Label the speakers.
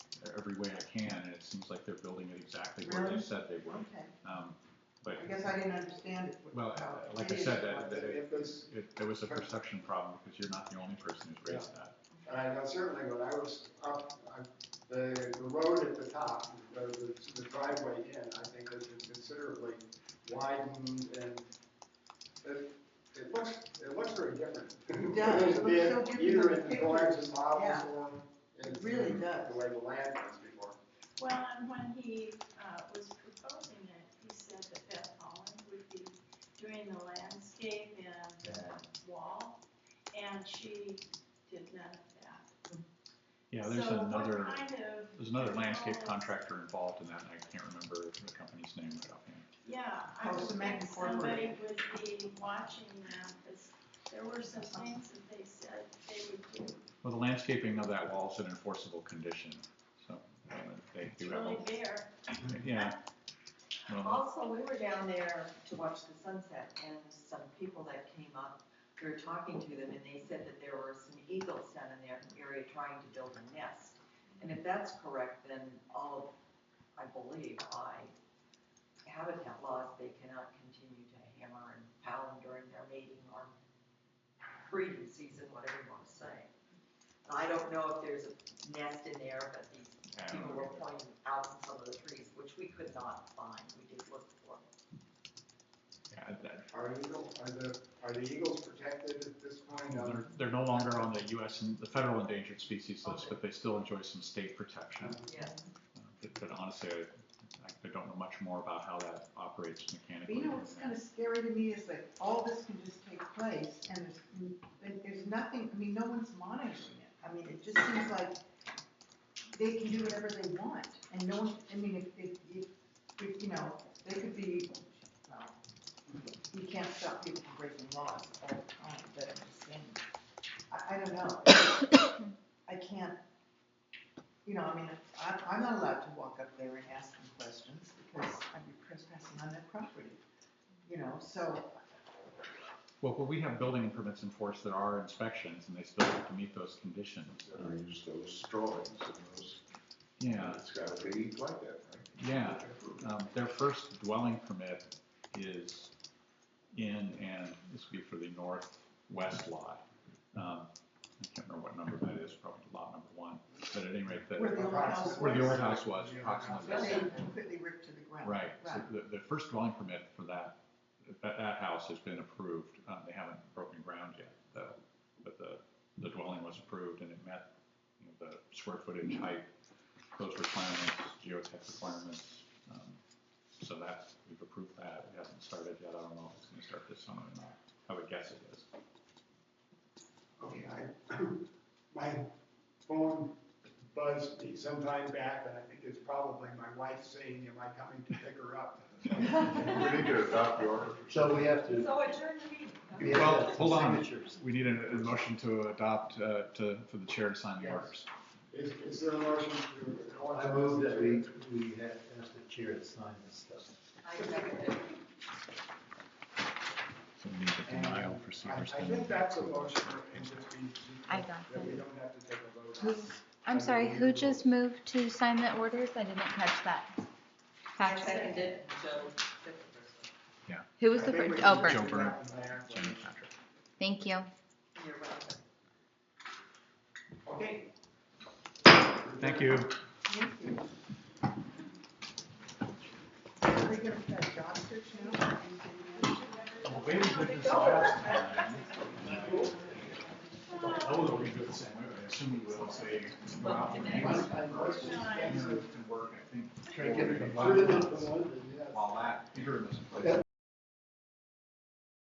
Speaker 1: every way I can, and it seems like they're building it exactly where they
Speaker 2: Really?
Speaker 1: said they would.
Speaker 2: Okay,
Speaker 1: Um, But,
Speaker 2: I guess I didn't understand it.
Speaker 1: well,
Speaker 2: how
Speaker 1: uh, like I
Speaker 2: it is.
Speaker 1: said, that, that it,
Speaker 3: If it's,
Speaker 1: it- there was a perception problem, because you're not the only person who's raised that.
Speaker 3: and I know certainly when I was up, I- the, the road at the top, the, the- the driveway in, I think has been considerably widened and it, it looks, it looks very different.
Speaker 2: It does. It looks so different
Speaker 3: Be Either
Speaker 2: than
Speaker 3: in
Speaker 2: the
Speaker 3: the drawings and models
Speaker 2: Yeah.
Speaker 3: or in
Speaker 2: It really
Speaker 3: the
Speaker 2: does.
Speaker 3: way the land was before.
Speaker 4: Well, and when he, uh, was proposing it, he said that Beth Holland would be doing the landscape and the wall, and she did none of that.
Speaker 1: Yeah, there's
Speaker 4: So
Speaker 1: another,
Speaker 4: what kind of?
Speaker 1: there's another landscape
Speaker 4: Oh.
Speaker 1: contractor involved in that, and I can't remember the company's name right offhand.
Speaker 4: Yeah, I would
Speaker 2: Postman
Speaker 4: think somebody
Speaker 2: Incorporated.
Speaker 4: would be watching that, because there were some things that they said they would do.
Speaker 1: Well, the landscaping of that wall is an enforceable condition, so, um, they
Speaker 4: It's
Speaker 1: do have,
Speaker 4: really
Speaker 1: a-
Speaker 4: bare.
Speaker 1: yeah. Well,
Speaker 5: Also, we were down there to watch the sunset, and some people that came up, we were talking to them, and they said that there were some eagles down in their area trying to build a nest. And if that's correct, then all, of I believe, by habitat laws, they cannot continue to hammer and pound during their mating or breeding season, whatever you want to say. And I don't know if there's a nest in there, but these
Speaker 1: I don't
Speaker 5: people
Speaker 1: know.
Speaker 5: were pointing out in some of the trees, which we could not find, we did look for.
Speaker 1: Yeah, that-
Speaker 3: Are eagle, are the, are the eagles protected at this point? Um,
Speaker 1: They're, they're no longer on the US, and the federal endangered species list, but they still enjoy some state protection.
Speaker 5: Yes.
Speaker 1: Uh, But but honestly, I, I don't know much more about how that operates
Speaker 2: But
Speaker 1: mechanically.
Speaker 2: you know what's kind of scary to me is that all this can just take place and there's, and there's nothing, I mean, no one's monitoring it. I mean, it just seems like they can do whatever they want and no one, I mean, if, if, if, if, you know, they could be, well, you can't stop people from breaking laws all the time, but I'm just saying, I, I don't know. I can't, you know, I mean, I, I'm not allowed to walk up there and ask them questions because I'd be trespassing on their property, you know, so,
Speaker 1: Well, well, we have building permits enforced, there are inspections, and they still have to meet those conditions.
Speaker 6: I use those drawings and those,
Speaker 1: Yeah,
Speaker 6: it's gotta be like that, right?
Speaker 1: yeah. Um, their first dwelling permit is in, and this would be for the northwest lot. Um, I can't remember what number that is, probably lot number one, but at any rate, that,
Speaker 2: Where the old house
Speaker 1: where the
Speaker 2: was.
Speaker 1: old house was,
Speaker 3: Yeah.
Speaker 1: approximately.
Speaker 2: then they completely ripped to the ground.
Speaker 1: Right, so the, the first dwelling permit for that, that, that house has been approved, uh, they haven't broken ground yet, though. But the, the dwelling was approved and it met, you know, the square footage, height, those requirements, geotech requirements. um, So that, we've approved that, it hasn't started yet, I don't know if it's gonna start this summer or not, I would guess it is.
Speaker 3: Okay, I, my phone buzzed me sometime back, and I think it's probably my wife saying, am I coming to pick her up?
Speaker 6: We need to adopt the order.
Speaker 7: So we have to,
Speaker 5: So adjourn the meeting.
Speaker 7: we have
Speaker 1: Well,
Speaker 7: to have
Speaker 1: hold on.
Speaker 7: signatures.
Speaker 1: We need a, a motion to adopt, uh, to, for the chair to sign the
Speaker 3: Yes.
Speaker 1: orders.
Speaker 3: Is, is there a motion to?
Speaker 7: I move that we, we have asked the chair to sign this stuff.
Speaker 5: I second it.
Speaker 1: So we need a
Speaker 3: And
Speaker 1: denial for
Speaker 3: I, I
Speaker 1: Seaver's.
Speaker 3: think that's a motion, and just be.
Speaker 8: I got
Speaker 3: That we
Speaker 8: it.
Speaker 3: don't have to take a vote. on.
Speaker 8: Who's- I'm sorry, who just moved to sign the orders? I didn't catch that.
Speaker 5: I
Speaker 8: Patrick?
Speaker 5: seconded it, Joe, second person.
Speaker 8: Who was
Speaker 3: I
Speaker 8: the
Speaker 3: think
Speaker 8: first?
Speaker 3: we
Speaker 8: Oh,
Speaker 3: can
Speaker 1: Joe
Speaker 3: do
Speaker 8: Bert.
Speaker 3: that
Speaker 1: Byrne.
Speaker 3: in there.
Speaker 1: Jenny Patrick.
Speaker 8: Thank you.
Speaker 5: You're welcome.
Speaker 3: Okay.
Speaker 1: Thank you.
Speaker 2: Thank you. Are we gonna put a job search now? Are you doing that?
Speaker 1: Try
Speaker 3: Should've been promoted, yes.
Speaker 1: While that, interim is in place.